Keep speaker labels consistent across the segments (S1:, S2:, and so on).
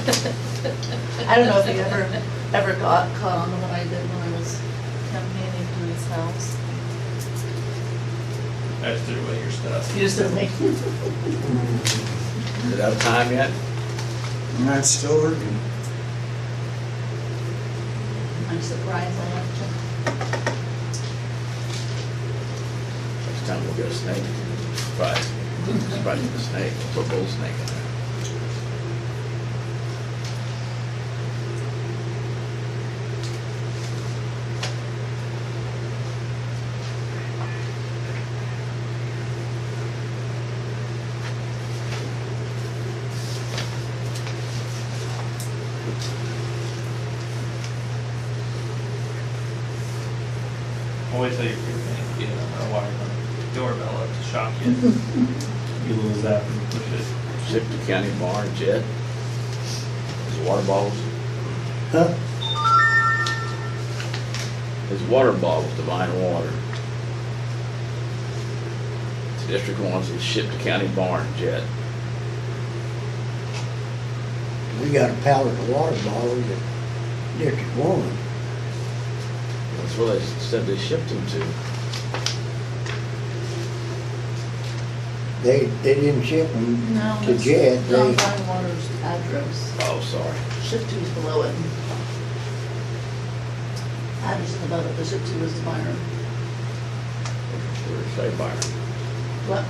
S1: I don't know if you ever, ever got caught on the one I did when I was campaigning for his house.
S2: I just threw away your stuff.
S1: You just didn't make,
S2: Is it out of time yet?
S3: And that's still working.
S1: I'm surprised I have
S2: Next time we'll get a snake. But, especially the snake, put a bull snake in there.
S4: I'll wait till you get a wire the doorbell up to shock you. You lose that and push it.
S2: Sip the county bar, jet. His water bottles,
S3: Huh?
S2: his water bottles, divine water. The district wants it shipped to county barn, jet.
S5: We got a pallet of water bottles at District One.
S2: That's where they said they shipped them to.
S5: They, they didn't ship them
S1: to.
S5: to Jet,
S1: John
S5: they,
S1: Bywater's address,
S2: Oh, sorry.
S1: shift two's below it. Address is above it, the shift two was the Byron.
S2: We were say Byron.
S1: What?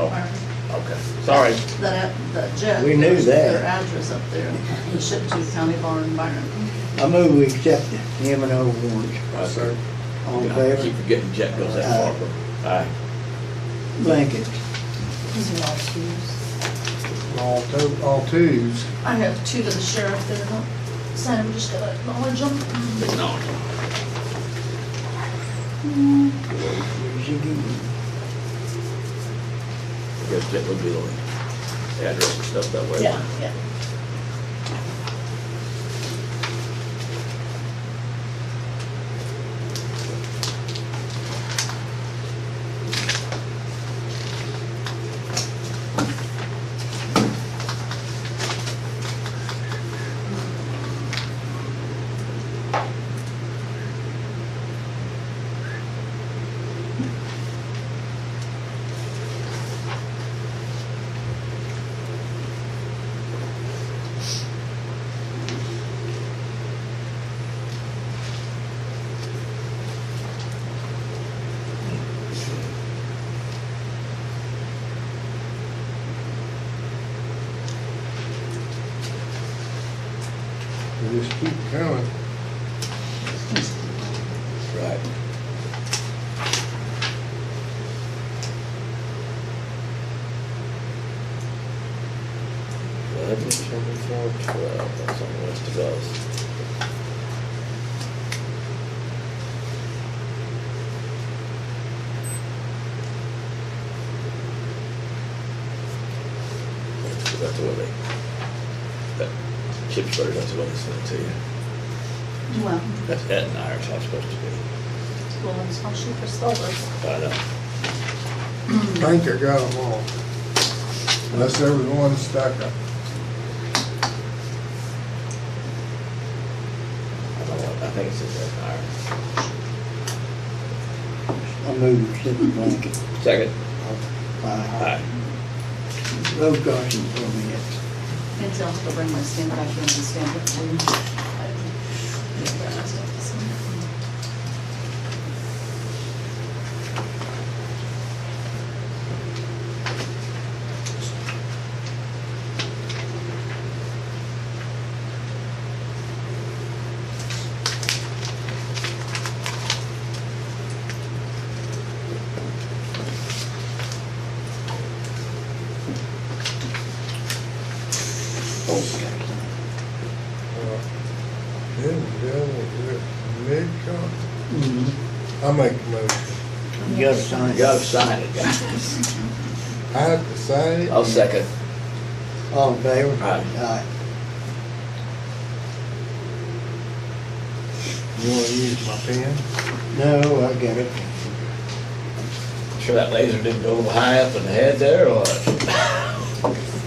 S2: Oh,
S1: Byron.
S2: okay. Sorry.
S1: That, that jet.
S5: We knew that.
S1: Their address up there, the ship to County Barn, Byron.
S5: I move we accept the M and O warrants.
S2: sir.
S5: All in
S2: I keep
S5: favor?
S2: forgetting jet goes that far, but, aye.
S5: Blankets.
S1: These are all twos.
S3: All two, all twos.
S1: I have two to the sheriff there, huh? Sam just gotta acknowledge them.
S2: But no.
S5: Here's your deed.
S2: Guess that would be the address and stuff that way.
S1: Yeah, yeah.
S3: They just keep coming.
S2: Right. Eleven, twenty-four, twelve, that's on the list of those. That's where they, that chip's better, that's what they sent to you.
S1: Well,
S2: That's Ed and I are not supposed to be.
S1: well, it's not she for Stoller.
S2: I know.
S3: I think I got them all. Unless there was one stuck up.
S2: I don't know. I think it's just Ed and
S5: I move we accept the blanket.
S2: I. Second.
S5: Aye.
S2: Aye.
S5: Road caution for a minute.
S1: And tell her to bring my stand back in and stand up for you. I
S3: Uh, Then we go with the mid-con.
S5: Mhm.
S3: I make the motion.
S5: You gotta sign
S2: You
S5: it.
S2: gotta sign it, guys.
S3: I have to sign it.
S2: I'll second.
S5: All in favor?
S2: Aye.
S3: You wanna use my pen?
S5: Aye. No, I got it.
S2: Sure that laser didn't go high up in the head there or what?